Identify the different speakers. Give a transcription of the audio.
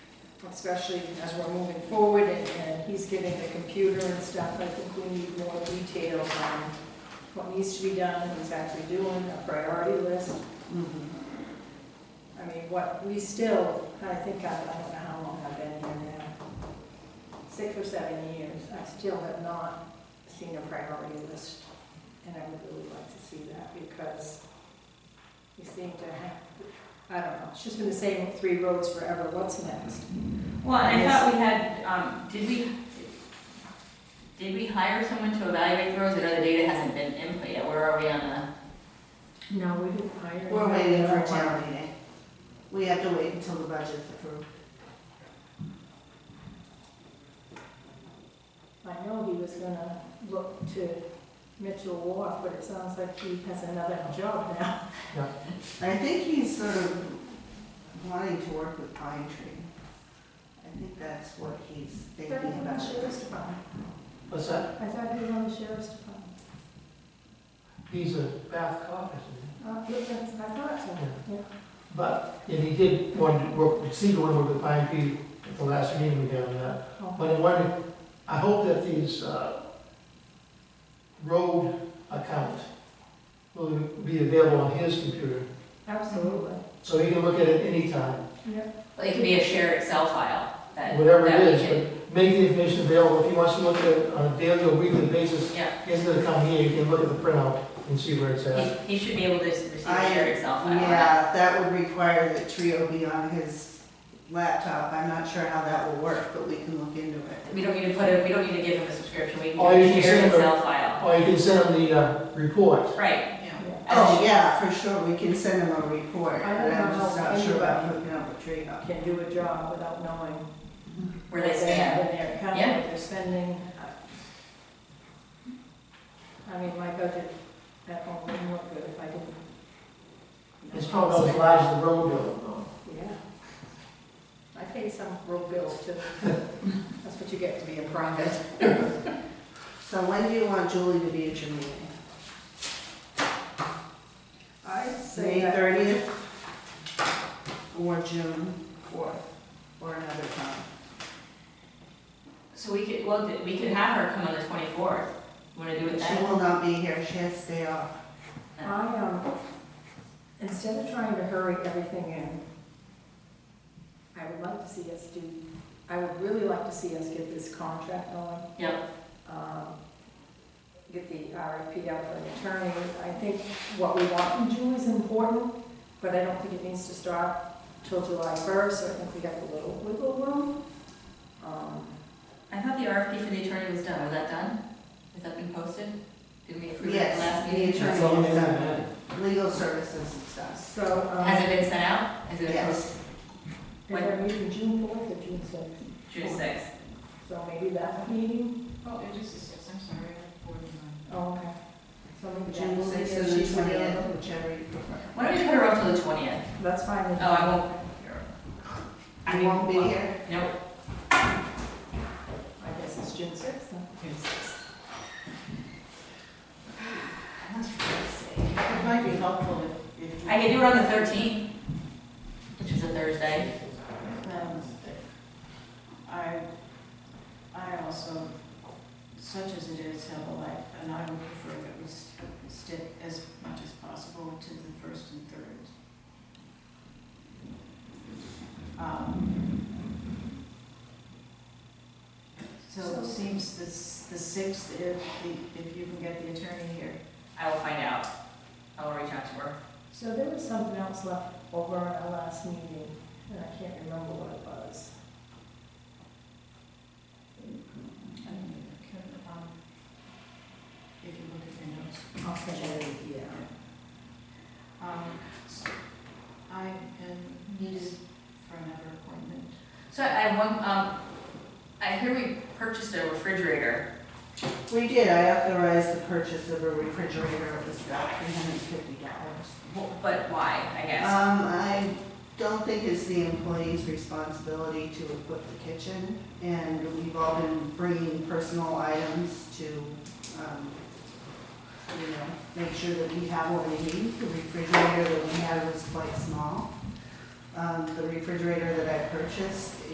Speaker 1: especially as we're moving forward and, and he's getting the computer and stuff, I think we need more detail on what needs to be done, what he's actually doing, a priority list. Mm-hmm. I mean, what, we still, I think, I I don't know how long I've been here now, six or seven years, I still have not seen a priority list. And I would really like to see that because we seem to have, I don't know, it's just been the same three roads forever, what's next?
Speaker 2: Well, and I thought we had, um, did we, did we hire someone to evaluate the roads? I know the data hasn't been input yet. Where are we on the?
Speaker 1: No, we didn't hire.
Speaker 3: We're waiting for a town meeting. We have to wait until the budget's approved.
Speaker 1: I know he was gonna look to Mitchell Wharf, but it sounds like he has another job now.
Speaker 3: I think he's sort of wanting to work with Pine Tree. I think that's what he's thinking about.
Speaker 1: department.
Speaker 4: What's that?
Speaker 1: I thought he was on the sheriff's department.
Speaker 4: He's a Bath cop, isn't
Speaker 1: Uh,
Speaker 4: he?
Speaker 1: yeah, that's- I thought so, yeah.
Speaker 4: But, and he did want to work, see the one with the pine tree at the last meeting we had on that.
Speaker 1: Oh,
Speaker 4: But I wonder, I hope that these, uh, road account will be available on his computer,
Speaker 1: Absolutely,
Speaker 4: so he can look at it anytime,
Speaker 1: yeah.
Speaker 2: Well, it could be a shared Excel file that.
Speaker 4: whatever it
Speaker 2: that we
Speaker 4: is,
Speaker 2: could-
Speaker 4: but make the information available, if he wants to look at it on a daily or weekly basis,
Speaker 2: Yeah,
Speaker 4: he's gonna come here, he can look at the printout and see where it's at.
Speaker 2: he, he should be able to s- receive a
Speaker 3: I-
Speaker 2: shared Excel file.
Speaker 3: Yeah, that would require that Trio be on his laptop. I'm not sure how that will work, but we can look into it.
Speaker 2: We don't need to put it, we don't need to give him a subscription. We can
Speaker 4: All you
Speaker 2: give him a
Speaker 4: can
Speaker 2: shared
Speaker 4: send him-
Speaker 2: Excel file.
Speaker 4: Or you can send him the, uh, report.
Speaker 2: Right.
Speaker 1: yeah.
Speaker 3: Oh, yeah, for sure, we can send him a report,
Speaker 1: I don't
Speaker 3: but I'm
Speaker 1: know
Speaker 3: just
Speaker 1: how
Speaker 3: not sure about
Speaker 1: anybody-
Speaker 3: hooking up with Trio.
Speaker 1: Can do a job without knowing
Speaker 2: Where they stand.
Speaker 1: in their account,
Speaker 2: Yeah.
Speaker 1: what they're spending. I mean, my budget at home wouldn't look good if I didn't.
Speaker 4: It's probably not as large as the road bill,
Speaker 1: Yeah. I pay some road bills too. That's what you get to be a private.
Speaker 3: So when do you want Julie to be at your meeting?
Speaker 1: I'd
Speaker 3: May thirtieth? Or June fourth, or another time?
Speaker 2: So we could, well, th- we could have her come on the twenty-fourth. Want to do it
Speaker 3: She
Speaker 2: then?
Speaker 3: will not be here, she has to stay off.
Speaker 1: I, um, instead of trying to hurry everything in, I would like to see us do, I would really like to see us get this contract going.
Speaker 2: Yep.
Speaker 1: um, get the RFP out for an attorney. I think what we want from Julie is important, but I don't think it needs to start till July 1st, so I think we got a little wiggle room. Um,
Speaker 2: I thought the RFP for the attorney was done. Was that done? Has that been posted? Did we approve it at the last
Speaker 3: Yes, the
Speaker 2: meeting?
Speaker 4: That's all
Speaker 3: attorney
Speaker 4: they
Speaker 3: is
Speaker 4: have,
Speaker 3: done, legal services and stuff.
Speaker 1: So,
Speaker 2: Has
Speaker 1: um,
Speaker 2: it been sent out? Has it been posted?
Speaker 3: Yes,
Speaker 1: and we're meeting June 4th or June 6th,
Speaker 2: June sixth.
Speaker 1: so maybe that meeting,
Speaker 2: Oh, it just is six, I'm sorry, forty-nine.
Speaker 1: oh, okay. So maybe that
Speaker 3: June
Speaker 1: will be
Speaker 3: sixth
Speaker 1: if
Speaker 3: and the
Speaker 1: she's
Speaker 3: twentieth,
Speaker 1: available.
Speaker 3: whichever you prefer.
Speaker 2: Why don't we put her off till the twentieth?
Speaker 1: That's fine.
Speaker 2: Oh, I won't. I
Speaker 3: You won't be
Speaker 2: mean,
Speaker 3: here?
Speaker 2: Nope.
Speaker 1: I guess it's June 6th then.
Speaker 2: That's for God's sake.
Speaker 5: It might be helpful if, if.
Speaker 2: I can do it on the thirteenth, which is a Thursday.
Speaker 5: Um, I, I also, such as it is, have a life, and I would prefer that we st- stick as much as possible to the first and third. Um, So it seems this, the sixth, if, the- if you can get the attorney here.
Speaker 2: I will find out. I will reach out to her.
Speaker 1: So there was something else left over on our last meeting, and I can't remember what it was.
Speaker 5: I don't know, can, um, If you look at your notes.
Speaker 1: I'll send it, yeah.
Speaker 5: Um, s- I am needed for another appointment.
Speaker 2: So I have one, um, I hear we purchased a refrigerator.
Speaker 3: We did, I authorized the purchase of a refrigerator, it was about three hundred and fifty dollars.
Speaker 2: Wh- But why, I guess?
Speaker 3: Um, I don't think it's the employee's responsibility to equip the kitchen, and we've all been bringing personal items to, um, you know, make sure that we have what we need. The refrigerator that we had was quite small. Um, the refrigerator that I purchased